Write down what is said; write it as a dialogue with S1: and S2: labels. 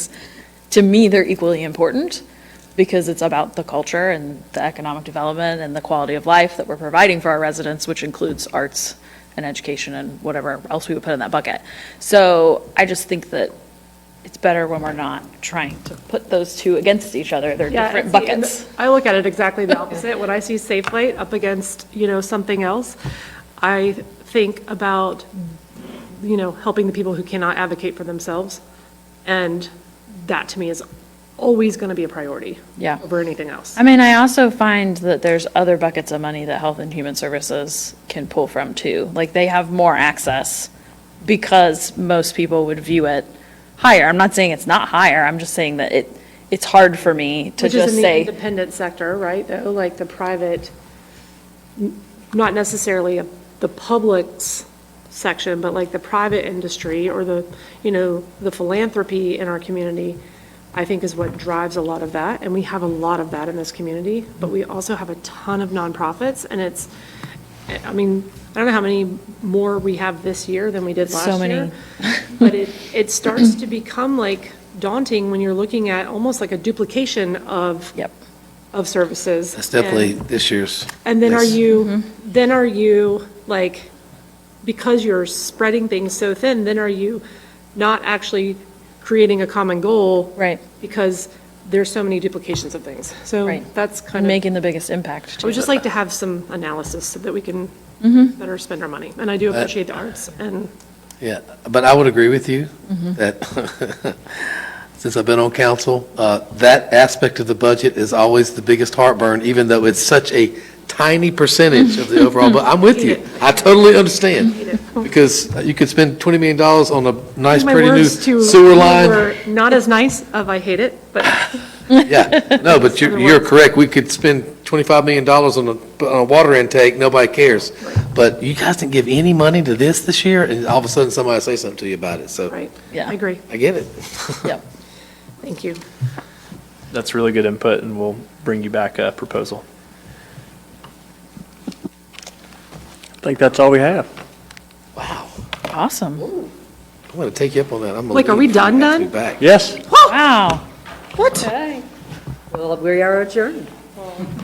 S1: to me, they're equally important because it's about the culture and the economic development and the quality of life that we're providing for our residents, which includes arts and education and whatever else we would put in that bucket. So I just think that it's better when we're not trying to put those two against each other. They're
S2: Yeah,
S1: different
S2: see, and
S1: buckets.
S2: I look at it exactly the opposite. When I see Safe Light up against, you know, something else, I think about, you know, helping the people who cannot advocate for themselves. And that to me is always going to be a priority.
S1: Yeah.
S2: Over anything else.
S1: I mean, I also find that there's other buckets of money that Health and Human Services can pull from too. Like they have more access because most people would view it higher. I'm not saying it's not higher. I'm just saying that it, it's hard for me to
S2: Which is
S1: just
S2: in the
S1: say,
S2: independent sector, right, though, like the private, n- not necessarily the public's section, but like the private industry or the, you know, the philanthropy in our community, I think is what drives a lot of that, and we have a lot of that in this community, but we also have a ton of nonprofits, and it's, I mean, I don't know how many more we have this year than we did
S1: So
S2: last year.
S1: many.
S2: But it, it starts to become like daunting when you're looking at almost like a duplication of,
S1: yep.
S2: of services.
S3: That's definitely
S2: And-
S3: this year's.
S2: And then are
S3: list.
S2: you,
S1: Mm-hmm.
S2: then are you, like, because you're spreading things so thin, then are you not actually creating a common goal?
S1: Right.
S2: Because there's so many duplications of things. So
S1: Right.
S2: that's kind
S1: And
S2: of.
S1: making the biggest impact
S2: I would
S1: too.
S2: just like to have some analysis so that we can
S1: Mm-hmm.
S2: better spend our money. And I do appreciate the arts and,
S3: Yeah, but I would agree with you that, since I've been on council, uh, that aspect of the budget is always the biggest heartburn, even though it's such a tiny percentage of the overall, but I'm with you. I totally understand. Because uh, you could spend $20 million on a nice,
S2: my
S3: pretty new
S2: words to
S3: sewer
S2: you
S3: line.
S2: were not as nice of I hate it, but
S3: Yeah, no, but you're, you're correct. We could spend $25 million on a, on a water intake, nobody cares. But you guys didn't give any money to this this year, and all of a sudden somebody will say something to you about it, so.
S2: right.
S1: Yeah.
S2: I agree.
S3: I get it.
S1: Yep.
S2: Thank you.
S4: That's really good input, and we'll bring you back a proposal. I think that's all we have.
S3: Wow.
S1: Awesome.
S3: I'm going to take you up on that. I'm gonna
S2: Like, are we
S3: leave.
S2: done,
S3: I have to
S2: done?
S3: be back.
S4: Yes?
S1: Wow.
S5: Well, we are adjourned.